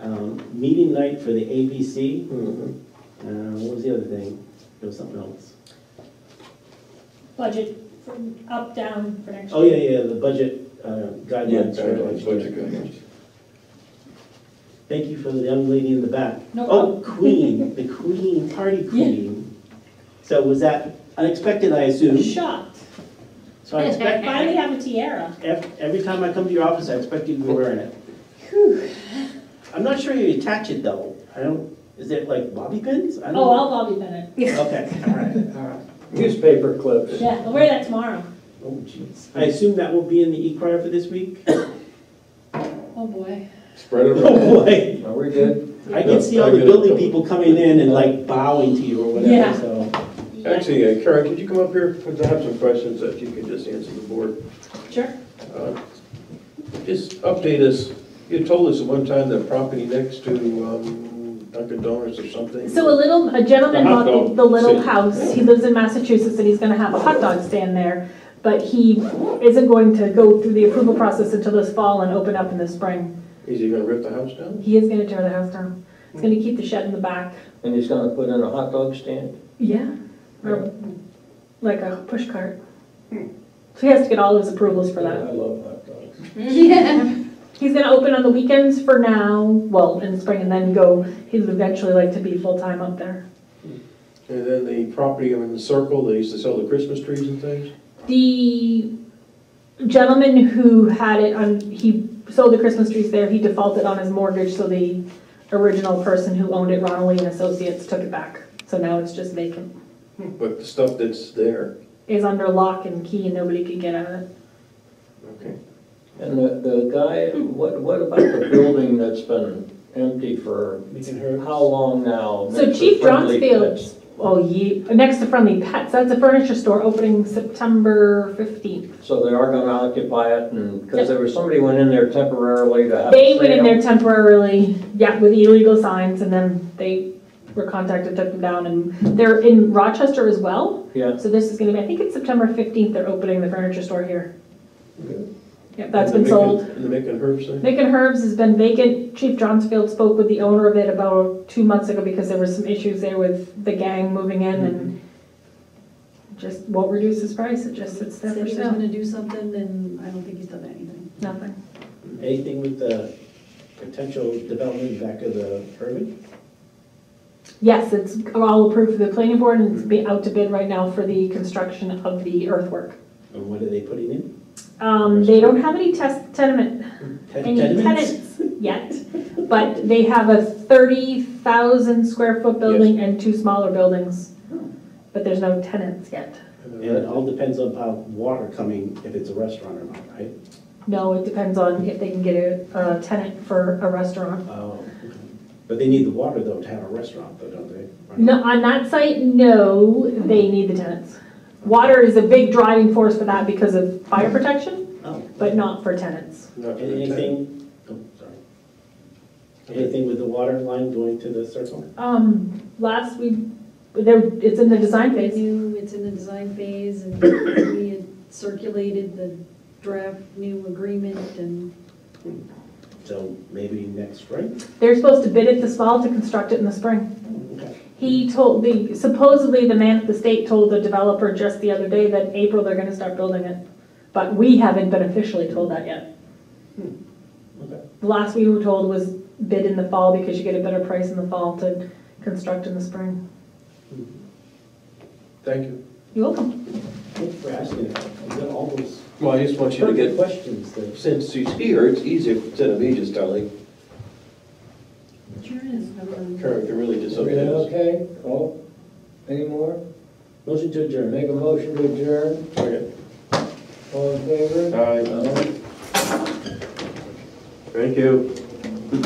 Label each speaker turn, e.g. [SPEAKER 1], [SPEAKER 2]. [SPEAKER 1] Um, meeting night for the ABC.
[SPEAKER 2] Mhm.
[SPEAKER 1] Uh, what was the other thing? There was something else.
[SPEAKER 3] budget from up, down for next year.
[SPEAKER 1] Oh, yeah, yeah, the budget uh, guidelines. for
[SPEAKER 2] Guidelines,
[SPEAKER 1] next year.
[SPEAKER 2] budget guidelines.
[SPEAKER 1] Thank you for the young lady in the back.
[SPEAKER 3] No
[SPEAKER 1] Oh, Queen, the Queen, party Queen. So was that unexpected, I
[SPEAKER 3] I'm
[SPEAKER 1] assume?
[SPEAKER 3] shocked.
[SPEAKER 1] So I
[SPEAKER 3] I
[SPEAKER 1] expect,
[SPEAKER 3] finally have a tiara.
[SPEAKER 1] ev- every time I come to your office, I expect you to be wearing it.
[SPEAKER 3] Whew.
[SPEAKER 1] I'm not sure you attach it though. I don't, is it like bobby pins? I don't.
[SPEAKER 3] Oh, I'll Bobby Bennett.
[SPEAKER 1] Okay, all right.
[SPEAKER 2] Newspaper clips.
[SPEAKER 3] Yeah, I'll wear that tomorrow.
[SPEAKER 1] Oh, jeez. I assume that will be in the e-crier for this week?
[SPEAKER 3] Oh, boy.
[SPEAKER 2] Spread it around.
[SPEAKER 1] Oh, boy.
[SPEAKER 2] Are we good?
[SPEAKER 1] I can see all the building people coming in and like bowing to you or whatever,
[SPEAKER 3] Yeah.
[SPEAKER 1] so.
[SPEAKER 2] Actually, uh, Karen, could you come up here? Because I have some questions that you could just answer the board.
[SPEAKER 3] Sure.
[SPEAKER 2] Uh, Just update us. You told us at one time that property next to um, Dunkin' Donuts or something.
[SPEAKER 4] So a little, a gentleman
[SPEAKER 2] The hot
[SPEAKER 4] bought the,
[SPEAKER 2] dog
[SPEAKER 4] the little
[SPEAKER 2] stand.
[SPEAKER 4] house, he lives in Massachusetts and he's gonna have a hot dog stand there, but he isn't going to go through the approval process until this fall and open up in the spring.
[SPEAKER 2] Is he gonna rip the house down?
[SPEAKER 4] He is gonna tear the house down, he's gonna keep the shed in the back,
[SPEAKER 5] And he's gonna put in a hot dog stand?
[SPEAKER 4] yeah, or like a push cart.
[SPEAKER 1] Hmm.
[SPEAKER 4] So he has to get all his approvals for that.
[SPEAKER 5] I love hot dogs.
[SPEAKER 4] He's gonna open on the weekends for now, well, in the spring and then go, he'd eventually like to be full-time up there.
[SPEAKER 2] And then the property in the circle, they used to sell the Christmas trees and things?
[SPEAKER 4] The gentleman who had it on, he sold the Christmas trees there, he defaulted on his mortgage, so the original person who owned it, Ronelli and Associates, took it back. So now it's just vacant.
[SPEAKER 2] But the stuff that's there,
[SPEAKER 4] Is under lock and key and nobody could get out of it.
[SPEAKER 2] okay.
[SPEAKER 5] And the, the guy, what, what about the building that's been empty for how long now?
[SPEAKER 4] So
[SPEAKER 5] Next to
[SPEAKER 4] Chief
[SPEAKER 5] Friendly
[SPEAKER 4] Johnsfield's, oh ye, next to Friendly Pets, that's a furniture store opening September fifteenth.
[SPEAKER 5] Pets. So they are gonna occupy it and, because there was, somebody went in there temporarily to have a
[SPEAKER 4] They went in
[SPEAKER 5] sale.
[SPEAKER 4] there temporarily, yeah, with illegal signs and then they were contacted, took them down and they're in Rochester as well.
[SPEAKER 5] Yeah,
[SPEAKER 4] So this is gonna be, I think it's September fifteenth, they're opening the furniture store here.
[SPEAKER 2] Good.
[SPEAKER 4] Yep, that's
[SPEAKER 2] And
[SPEAKER 4] been
[SPEAKER 2] the
[SPEAKER 4] sold.
[SPEAKER 2] Macon- And the Macon Herbs thing?
[SPEAKER 4] Nick and Herbs has been vacant. Chief Johnsfield spoke with the owner of it about two months ago because there were some issues there with the gang moving in and just won't reduce his price, it just sits there
[SPEAKER 6] Said he
[SPEAKER 4] for
[SPEAKER 6] was
[SPEAKER 4] sale,
[SPEAKER 6] gonna do something, and I don't think he's done anything.
[SPEAKER 4] nothing.
[SPEAKER 1] Anything with the potential development back of the Herman?
[SPEAKER 4] Yes, it's all approved for the planning board and it's be out to bid right now for the construction of the earthwork.
[SPEAKER 1] And what are they putting in?
[SPEAKER 4] Um, they don't have any test tenement
[SPEAKER 1] Ten-
[SPEAKER 4] any
[SPEAKER 1] Tenements?
[SPEAKER 4] tenants yet, but they have a thirty thousand square foot building and two smaller buildings. But there's no tenants yet.
[SPEAKER 1] And it all depends on how water coming, if it's a restaurant or not, right?
[SPEAKER 4] No, it depends on if they can get a, a tenant for a restaurant.
[SPEAKER 1] Oh. But they need the water though to have a restaurant though, don't they? Or not?
[SPEAKER 4] No, on that site, no, they need the tenants. Water is a big driving force for that because of fire protection,
[SPEAKER 1] Oh.
[SPEAKER 4] but not for tenants.
[SPEAKER 2] Not for the tenant.
[SPEAKER 1] Anything, oh, sorry. Anything with the water line going to the circle?
[SPEAKER 4] Um, last we, there, it's in the design
[SPEAKER 6] They
[SPEAKER 4] phase.
[SPEAKER 6] knew it's in the design phase, and we had circulated the draft new agreement, and
[SPEAKER 1] So maybe next spring? Oh,
[SPEAKER 4] They're supposed to bid it this fall to construct it in the spring.
[SPEAKER 1] Okay.
[SPEAKER 4] He told the, supposedly the man at the state told the developer just the other day that in April they're gonna start building it. But we haven't been officially told that yet.
[SPEAKER 1] Okay.
[SPEAKER 4] The last we were told was bid in the fall because you get a better price in the fall to construct in the spring.
[SPEAKER 2] Thank you.
[SPEAKER 4] You're welcome.
[SPEAKER 1] Thanks for asking that. I've got all those
[SPEAKER 2] Well, I just want you to
[SPEAKER 1] perfect
[SPEAKER 2] get,
[SPEAKER 1] questions that
[SPEAKER 2] since he's here, it's easier instead of me just telling.
[SPEAKER 6] sure is. um,
[SPEAKER 2] Karen can really just
[SPEAKER 5] Everything
[SPEAKER 2] update us.
[SPEAKER 5] okay? Oh, any more?
[SPEAKER 1] Motion to adjourn.
[SPEAKER 5] Make a motion to adjourn,
[SPEAKER 2] Okay.
[SPEAKER 5] all in favor?
[SPEAKER 2] Aye.
[SPEAKER 5] Aye.
[SPEAKER 2] Thank you.